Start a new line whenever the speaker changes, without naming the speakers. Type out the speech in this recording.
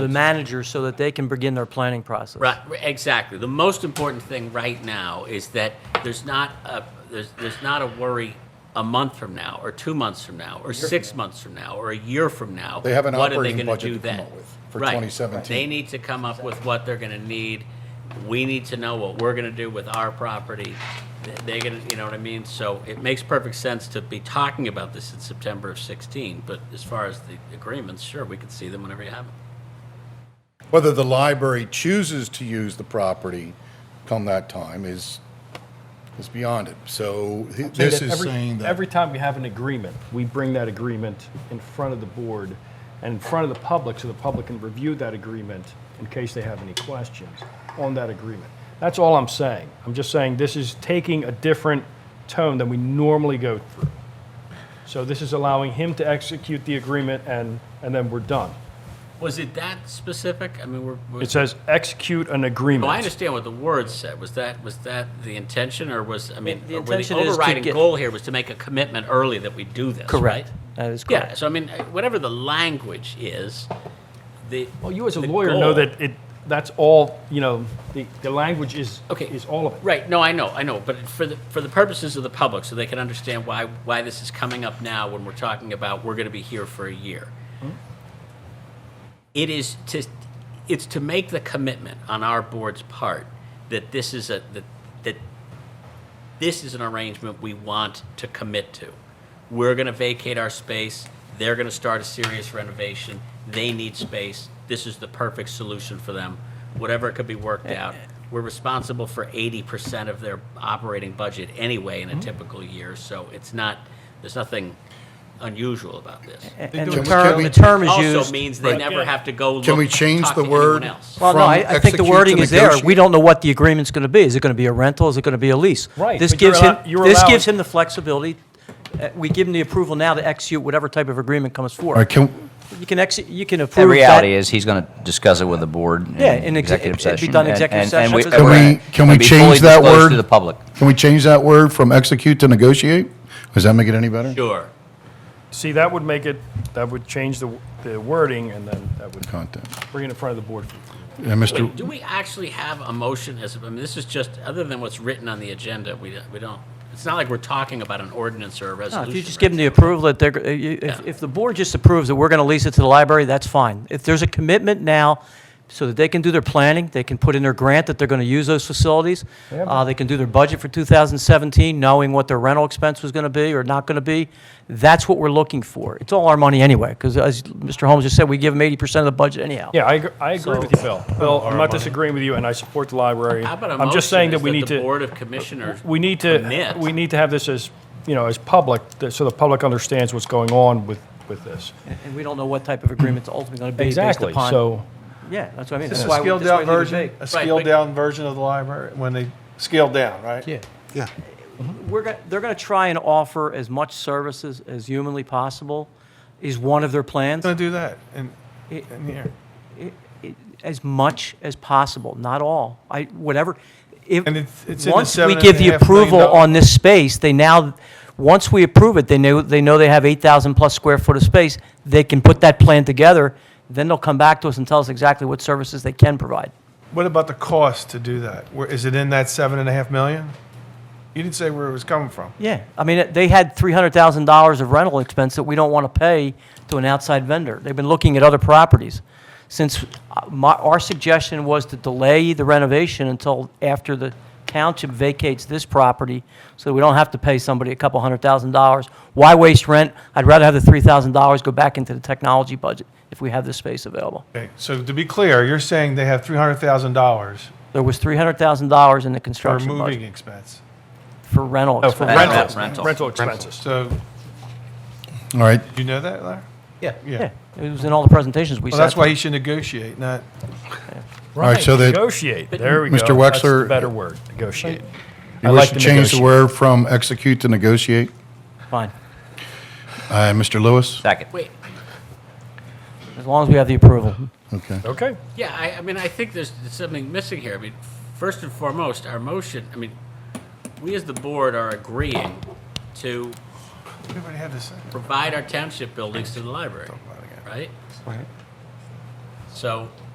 the manager so that they can begin their planning process.
Right, exactly. The most important thing right now is that there's not a, there's, there's not a worry a month from now, or two months from now, or six months from now, or a year from now.
They have an
What are they
operating
gonna
budget
do
to come
then?
up with for
Right.
2017.
They need to come up with what they're gonna need. We need to know what we're gonna do with our property. They- They're gonna, you know what I mean? So it makes perfect sense to be talking about this in September of 16, but as far as the agreements, sure, we can see them whenever you have them.
Whether the library chooses to use the property come that time is, is beyond it. So th- this
that
is
every-
saying that.
Every time we have an agreement, we bring that agreement in front of the board and in front of the public, so the public can review that agreement in case they have any questions on that agreement. That's all I'm saying. I'm just saying this is taking a different tone than we normally go through. So this is allowing him to execute the agreement and, and then we're done.
Was it that specific? I mean, we're. we're-
It says execute an agreement.
Well, I understand what the word said. Was that, was that the intention, or was, I mean,
The
or were the
intention is to
overriding
get-
goal here was to make a commitment early that we do this, right?
Correct. That is
Yeah,
correct.
so I mean, whatever the language is, the.
Well, you as a
the
lawyer know
goal-
that it, that's all, you know, the, the language is,
Okay.
is all of it.
Right, no, I know, I know, but for the, for the purposes of the public, so they can understand why, why this is coming up now when we're talking about, we're gonna be here for a year.
Hmm?
It is to, it's to make the commitment on our board's part that this is a, that, that this is an arrangement we want to commit to. We're gonna vacate our space, they're gonna start a serious renovation, they need space, this is the perfect solution for them, whatever could be
Eh,
worked out. We're responsible for eighty percent of their operating budget anyway in
Mm-hmm.
a typical year, so it's not, there's nothing unusual about this.
And the
Can we-
term,
can
the
we-
Eh, term is
Also
used.
means they never have to go look,
Can we change
talk
the
to anyone
word?
else.
Well, no,
from
I, I think
execute
the
to
wording is there. We
negotiate?
don't know what the agreement's going to be. Is it going to be a rental? Is it going to be a lease?
Right,
This
but you're
gives him,
allow- you're
this
allowing-
gives him the flexibility. Uh, We give him the approval now to execute whatever type of agreement comes
All right,
forward.
can,
You can execute, you can approve
The
that.
reality is he's going to discuss it with the board in
Yeah, in exe-
executive
it'd be
session.
done
and-
executive
and- and
session.
we-
Can
and
we- can we
be fully
change that
disclosed
word?
To the public.
can we change that word from execute to negotiate? Does that make it any better?
Sure.
See, that would make it, that would change the, the wording, and then that would
Content.
bring it in front of the board.
And Mr.
Do we actually have a motion as, I mean, this is just, other than what's written on the agenda, we, we don't, it's not like we're talking about an ordinance or a
No,
resolution.
If you just
right?
give them the approval that they're, uh, you- if, if the board just approves that we're going to lease it to the library, that's fine. If there's a commitment now, so that they can do their planning, they can put in their grant that they're going to use those facilities, uh, they can do their budget for 2017, knowing what their rental expense was going to be or not going to be, that's what we're looking for. It's all our money anyway, because as Mr. Holmes just said, we give them 80% of the budget anyhow.
Yeah, I, ag- I agree with you, Bill. Bill, I'm not disagreeing with you, and I support the library.
How about a
I'm just
motion
saying that
is
we need
the
to,
Board of Commissioners,
we need to,
commit?
we need to have this as, you know, as public, th- so the public understands what's going on with, with this.
And we don't know what type of agreement's ultimately going to be based upon.
Exactly, so,
Yeah, that's what I mean.
This
That's
is
why
a
we- that's why
scaled down
we leave it
version,
vague.
a
but-
scaled down version of the library, when they scaled down, right?
Yeah.
Yeah.
we're going, they're going to try and offer as much services as humanly possible is one of their plans,
Gonna do that in,
It-
in here.
as much as possible, not all. I, whatever, if,
And it's- it's in the
once we
seven
give
and a
the
half million
approval
dollar-
on this space, they now, once we approve it, they know, they know they have 8,000 plus square foot of space, they can put that plan together, then they'll come back to us and tell us exactly what services they can provide.
What about the cost to do that? Where, is it in that seven and a half million? You didn't say where it was coming from.
Yeah, I mean, it- they had three hundred thousand dollars of rental expense that we don't want to pay to an outside vendor. They've been looking at other properties. Since uh, my, our suggestion was to delay the renovation until after the township vacates this property, so we don't have to pay somebody a couple hundred thousand dollars. Why waste rent? I'd rather have the three thousand dollars go back into the technology budget if we have this space available.
Okay, so to be clear, you're saying they have three hundred thousand dollars
There was three hundred thousand dollars in the
for
construction
moving Oh,
budget
expense.
for rental
no, uh, for
expense.
rental,
Rental.
rental expenses.
So,
All right,
you know that, Larry? Yeah. Yeah.
Yeah, it was in all the presentations we
Well,
sat
that's why
through.
he should negotiate, not,
right, so that-
Negotiate, there we go.
Mr.
That's the
Wexler-
Better word, negotiate. I
you
like
wish
to
to change the
negotiate.
word from execute to negotiate?
Fine,
Uh, Mr. Lewis?
Second.
wait,
as long as we have the approval.
Okay.
Okay.
yeah, I, I mean, I think there's something missing here. I mean, first and foremost, our motion, I mean, we as the board are agreeing to
we already have this.
provide our township buildings to the library, right? So